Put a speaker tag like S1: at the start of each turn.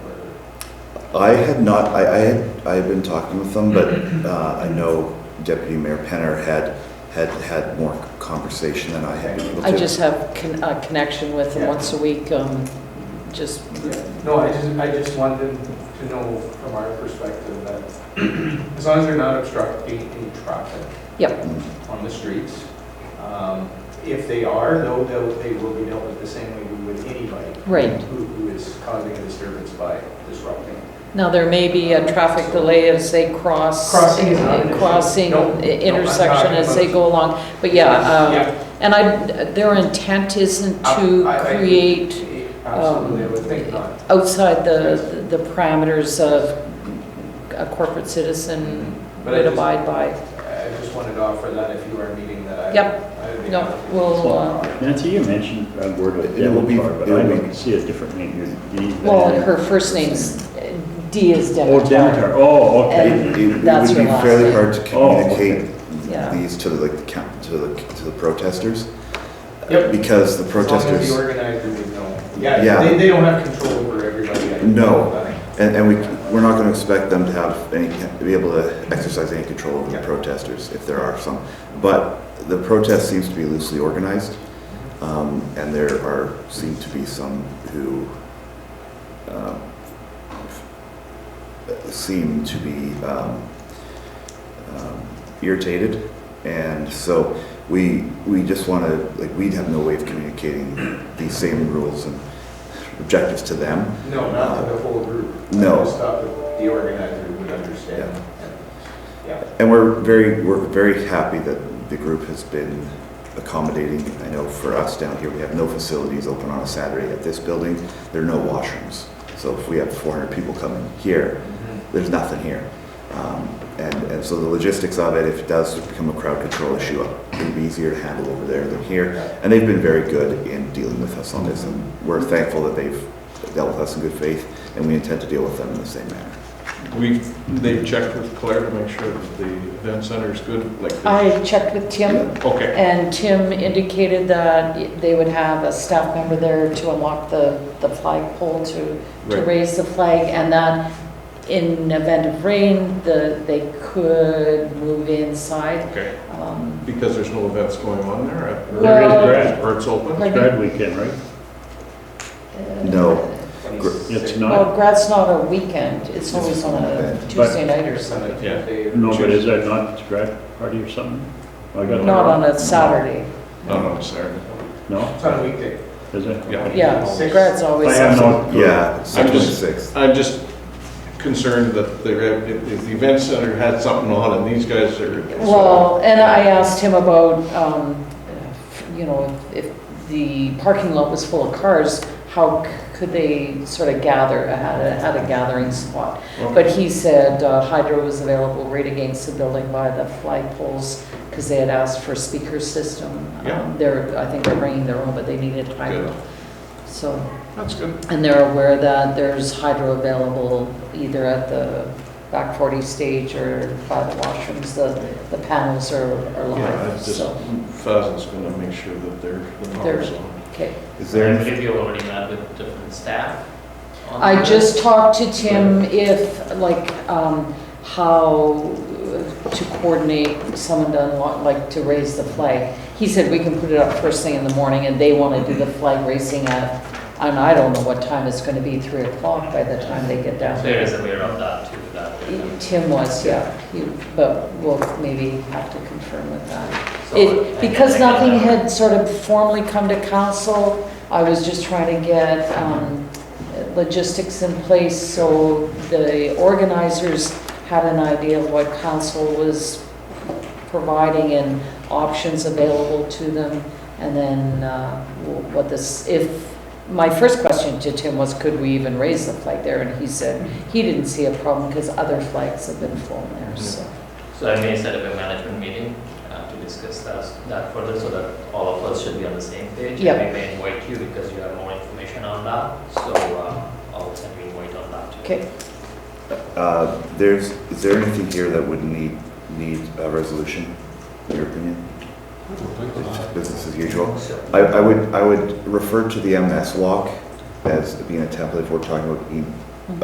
S1: I had not, I, I had, I had been talking with them, but,
S2: Mm-hmm.
S1: uh, I know Deputy Mayor Penner had, had, had more conversation than I had been able to.
S3: I just have con- a connection with him
S2: Yeah.
S3: once a week, um, just,
S2: No, I just, I just want them to know from our perspective that as long as they're not obstructing any traffic
S3: yep,
S1: Mm.
S2: on the streets, um, if they are, though, they'll, they will be dealt with the same way we would anybody
S3: right.
S2: who, who is causing a disturbance by disrupting.
S3: Now, there may be a traffic delay as they cross.
S2: Crossing is not an issue.
S3: Crossing
S2: Nope, nope, I'm
S3: intersection
S2: talking
S3: as they
S2: about-
S3: go along, but yeah, um,
S2: Yeah,
S3: and I, their intent isn't
S2: I- I-
S3: to
S2: I-
S3: create um,
S2: Absolutely, I would think not.
S3: outside the, the parameters of a corporate citizen
S2: Mm-hmm. But I
S3: would
S2: just-
S3: abide by.
S2: I just wanted to offer that if you are meeting that I.
S3: Yep.
S2: I would be
S3: No,
S2: happy.
S3: we'll, uh,
S4: Nancy, you mentioned a word with
S1: It will be-
S4: Devonport, but
S1: it will
S4: I
S1: be-
S4: don't see a different name here. D-
S3: well,
S4: uh,
S3: her first name's, D is
S4: Oh,
S3: Demeter.
S4: Demeter, oh, okay.
S1: It- It it
S3: That's
S1: would be
S3: your last
S1: fairly
S3: name.
S1: hard to
S4: Oh, okay.
S1: communicate
S3: Yeah.
S1: these to the, like, the coun- to the, to the protesters.
S2: Yep.
S1: Because the
S2: As
S1: protesters,
S2: long as the organizer would know.
S1: Yeah.
S2: Yeah, they, they don't have control over everybody. I know
S1: No.
S2: that.
S1: and, and we, we're not gonna expect them to have any, to be able to exercise any control over the
S2: Yeah.
S1: protesters, if there are some. But the protest seems to be loosely organized, um, and there are, seem to be some who, um, seem to be, um, um, irritated. And so we, we just want to, like, we'd have no way of communicating these same rules and objectives to them.
S2: No, not to the whole group.
S1: No.
S2: I just thought that the organizer would understand. Yeah.
S1: And we're very, we're very happy that the group has been accommodating. I know for us down here, we have no facilities open on a Saturday at this building. There are no washrooms. So if we have 400 people coming here,
S4: Mm-hmm.
S1: there's nothing here. Um, and, and so the logistics of it, if it does become a crowd control issue, it'd be easier to handle over there than here. And they've been very good in dealing with us on this, and we're thankful that they've dealt with us in good faith, and we intend to deal with them in the same manner.
S5: We, they've checked with Claire to make sure that the event center is good, like.
S3: I checked with Tim
S5: Okay,
S3: And Tim indicated that they would have a staff member there to unlock the, the flagpole to, to
S5: Right.
S3: raise the flag, and that in event of rain, the, they could move inside.
S5: okay,
S3: Um,
S5: because there's no events going on there, uh,
S4: There is
S3: Well-
S4: grad,
S5: or it's open?
S3: Like-
S4: grad weekend, right?
S3: uh,
S1: No.
S4: It's
S3: Well,
S4: not,
S3: grad's not a weekend, it's
S1: It's
S3: always on a
S1: event.
S3: Tuesday night or
S2: There's some
S3: something,
S2: that they-
S4: no, but is that not a grad party or something? I got it
S3: not
S4: wrong.
S3: on a Saturday.
S5: Not on Saturday.
S4: No,
S2: It's on a weekday.
S4: is it?
S5: Yeah.
S3: Yeah,
S2: Six.
S3: grad's always.
S4: I have no.
S1: Yeah,
S5: I'm
S1: September
S5: just-
S1: 6th.
S5: I'm just concerned that the, if if the event center had something on and these guys are.
S3: Well, and I uh, asked him about, um, you know, if the parking lot was full of cars, how c- could they sort of gather, had a, had a gathering spot? But he said uh, hydro was available right against the building by the flagpoles, because they had asked for a speaker system. Um,
S5: Yeah.
S3: They're, I think they're bringing their own, but they needed hydro.
S5: Good.
S3: So,
S5: That's good.
S3: and they're aware that there's hydro available either at the back 40 stage or by the washrooms, the, the panels are, are
S5: Yeah, I
S3: live,
S5: just,
S3: so,
S5: Fuzz is gonna make sure that they're, the
S3: They're-
S5: power's on.
S3: okay.
S1: Is there
S6: Have
S1: anything?
S6: you already met with different staff? on
S3: I
S6: that?
S3: just talked to Tim if, like, um, how to coordinate someone to unlock, like, to raise the flag. He said we can put it up first thing in the morning, and they want to do the flag raising at, and I don't know what time it's going to be, 3 o'clock by the time they get down
S6: There is a way around that too, that.
S3: Tim was, yeah, He- but we'll maybe have to confirm with that.
S6: So
S3: It,
S6: I-
S3: because
S6: I got
S3: nothing
S6: that.
S3: had sort of formally come to council, I was just trying to get um, logistics in place so the organizers had an idea of what council was providing and options available to them, and then uh, what this, if, my first question to Tim was, could we even raise the flag there? And he said, he didn't see a problem because other flags have been flown there, so.
S6: So I may set up a management meeting uh, to discuss that, that further so that all of us should be on the same page.
S3: Yep.
S6: And We may invite you because you have more information on that, so uh, I'll send you invite on that too.
S3: Okay,
S1: Uh, There's, is there anything here that would need, need a resolution, in your opinion? It's Business as usual?
S6: So-
S1: I, I would, I would refer to the MS walk as being a template if we're talking about e-